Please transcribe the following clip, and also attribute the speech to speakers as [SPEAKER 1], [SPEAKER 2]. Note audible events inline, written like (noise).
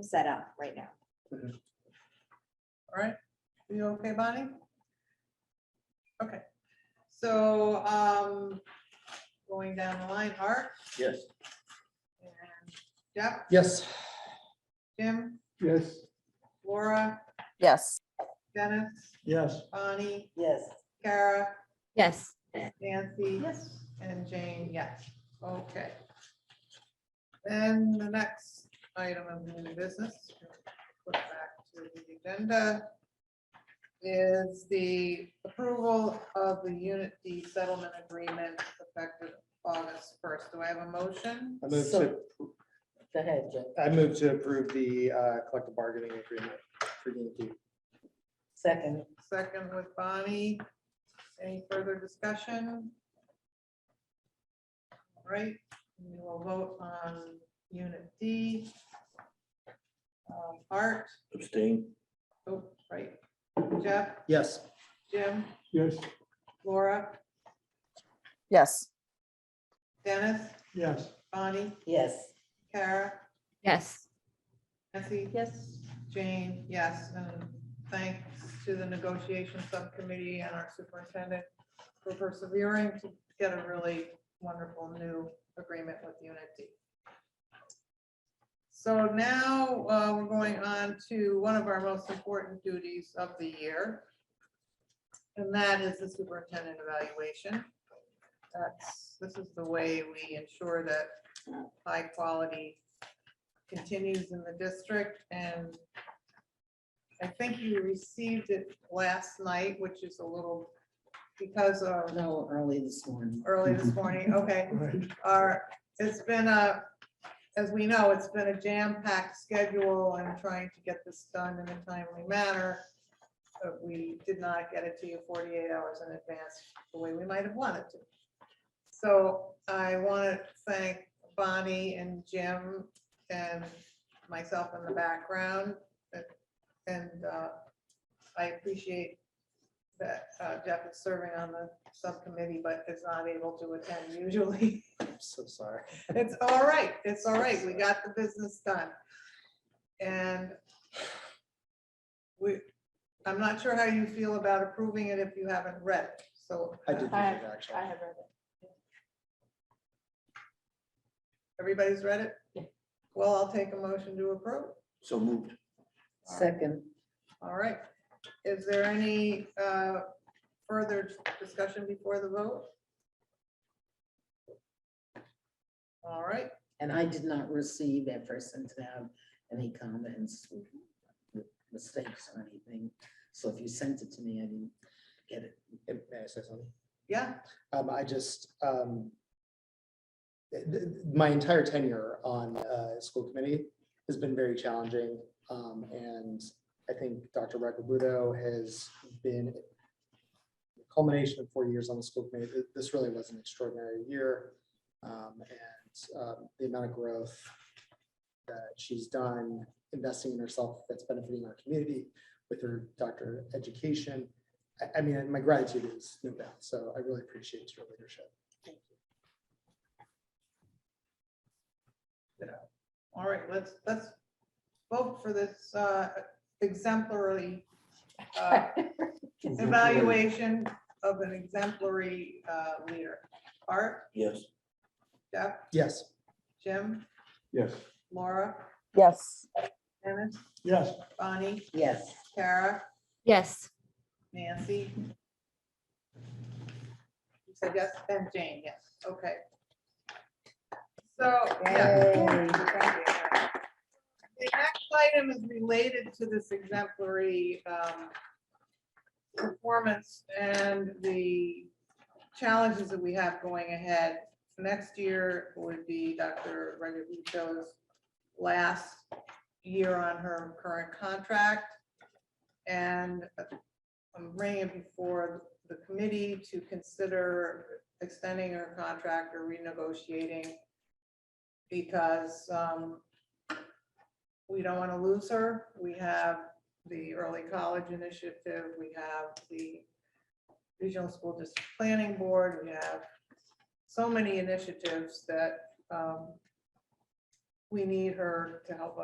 [SPEAKER 1] set up right now.
[SPEAKER 2] All right, Are you okay, Bonnie? Okay, so, um, going down the line, Art
[SPEAKER 3] Yes.
[SPEAKER 2] and Jeff,
[SPEAKER 4] Yes.
[SPEAKER 2] Jim,
[SPEAKER 4] Yes.
[SPEAKER 2] Laura,
[SPEAKER 5] Yes.
[SPEAKER 2] Dennis,
[SPEAKER 4] Yes.
[SPEAKER 2] Bonnie,
[SPEAKER 1] Yes.
[SPEAKER 2] Kara,
[SPEAKER 5] Yes.
[SPEAKER 2] Nancy. Yes. And Jane, yes, okay. Then the next item of new business, put back to the agenda, is the approval of the Unit D settlement agreement effective August first. Do I have a motion?
[SPEAKER 4] I move to,
[SPEAKER 6] So- Go ahead, Jim.
[SPEAKER 4] I move to approve the uh, collective bargaining agreement for Unit D.
[SPEAKER 6] Second,
[SPEAKER 2] Second with Bonnie. Any further discussion? All Right, we will vote on unit D. Um, Art,
[SPEAKER 3] Abstain.
[SPEAKER 2] oh, right, Jeff,
[SPEAKER 4] Yes.
[SPEAKER 2] Jim,
[SPEAKER 4] Yes.
[SPEAKER 2] Laura,
[SPEAKER 5] Yes.
[SPEAKER 2] Dennis,
[SPEAKER 4] Yes.
[SPEAKER 2] Bonnie,
[SPEAKER 6] yes.
[SPEAKER 2] Kara,
[SPEAKER 5] Yes.
[SPEAKER 2] Nancy.
[SPEAKER 6] Yes.
[SPEAKER 2] Jane, yes, and thanks to the negotiation subcommittee and our superintendent for persevering to get a really wonderful new agreement with Unity. So now uh, we're going on to one of our most important duties of the year. And that is the superintendent evaluation. That's, this is the way we ensure that high quality continues in the district and I think you received it last night, which is a little, because of
[SPEAKER 6] No, early this morning.
[SPEAKER 2] early this morning, okay. Our, it's been a, as we know, it's been a jam-packed schedule and trying to get this done in a timely manner. But we did not get it to you forty-eight hours in advance the way we might have wanted to. So I want to thank Bonnie and Jim and myself in the background. uh, And uh, I appreciate that uh, Jeff is serving on the subcommittee, but is not able to attend usually. (laughs)
[SPEAKER 4] I'm so sorry.
[SPEAKER 2] It's all right, it's all right, we got the business done. And we, I'm not sure how you feel about approving it if you haven't read it, so.
[SPEAKER 4] I did, read it,
[SPEAKER 1] I-
[SPEAKER 4] actually.
[SPEAKER 1] I have read it.
[SPEAKER 2] Everybody's read it?
[SPEAKER 6] Yeah.
[SPEAKER 2] Well, I'll take a motion to approve.
[SPEAKER 3] So moved.
[SPEAKER 6] Second,
[SPEAKER 2] All right. Is there any uh, further discussion before the vote? All right,
[SPEAKER 6] and I did not receive at first and to have any comments, mistakes or anything. So if you sent it to me, I didn't get it.
[SPEAKER 4] Hey, May I say something?
[SPEAKER 2] yeah,
[SPEAKER 4] Um, I just, um, th- th- my entire tenure on, uh, school committee has been very challenging. Um, and I think Dr. Rakabudo has been the culmination of four years on the school committee. Th- This really was an extraordinary year. Um, and, um, the amount of growth that she's done, investing in herself, that's benefiting our community with her doctor education. I, I mean, my gratitude is no doubt, so I really appreciate your leadership.
[SPEAKER 2] all right, let's, let's vote for this uh, exemplary uh, evaluation of an exemplary uh, leader. Art,
[SPEAKER 3] Yes.
[SPEAKER 2] Jeff,
[SPEAKER 4] Yes.
[SPEAKER 2] Jim,
[SPEAKER 4] Yes.
[SPEAKER 2] Laura,
[SPEAKER 5] Yes.
[SPEAKER 2] Dennis,
[SPEAKER 4] Yes.
[SPEAKER 2] Bonnie,
[SPEAKER 6] Yes,
[SPEAKER 2] Kara,
[SPEAKER 5] Yes.
[SPEAKER 2] Nancy. You said yes, and Jane, yes, okay. So, yeah. The next item is related to this exemplary um, performance and the challenges that we have going ahead. Next year would be Dr. Regalucho's last year on her current contract. And I'm bringing it before the committee to consider extending her contract or renegotiating because um, we don't want to lose her. We have the early college initiative, we have the regional school district planning board, we have so many initiatives that um, we need her to help us.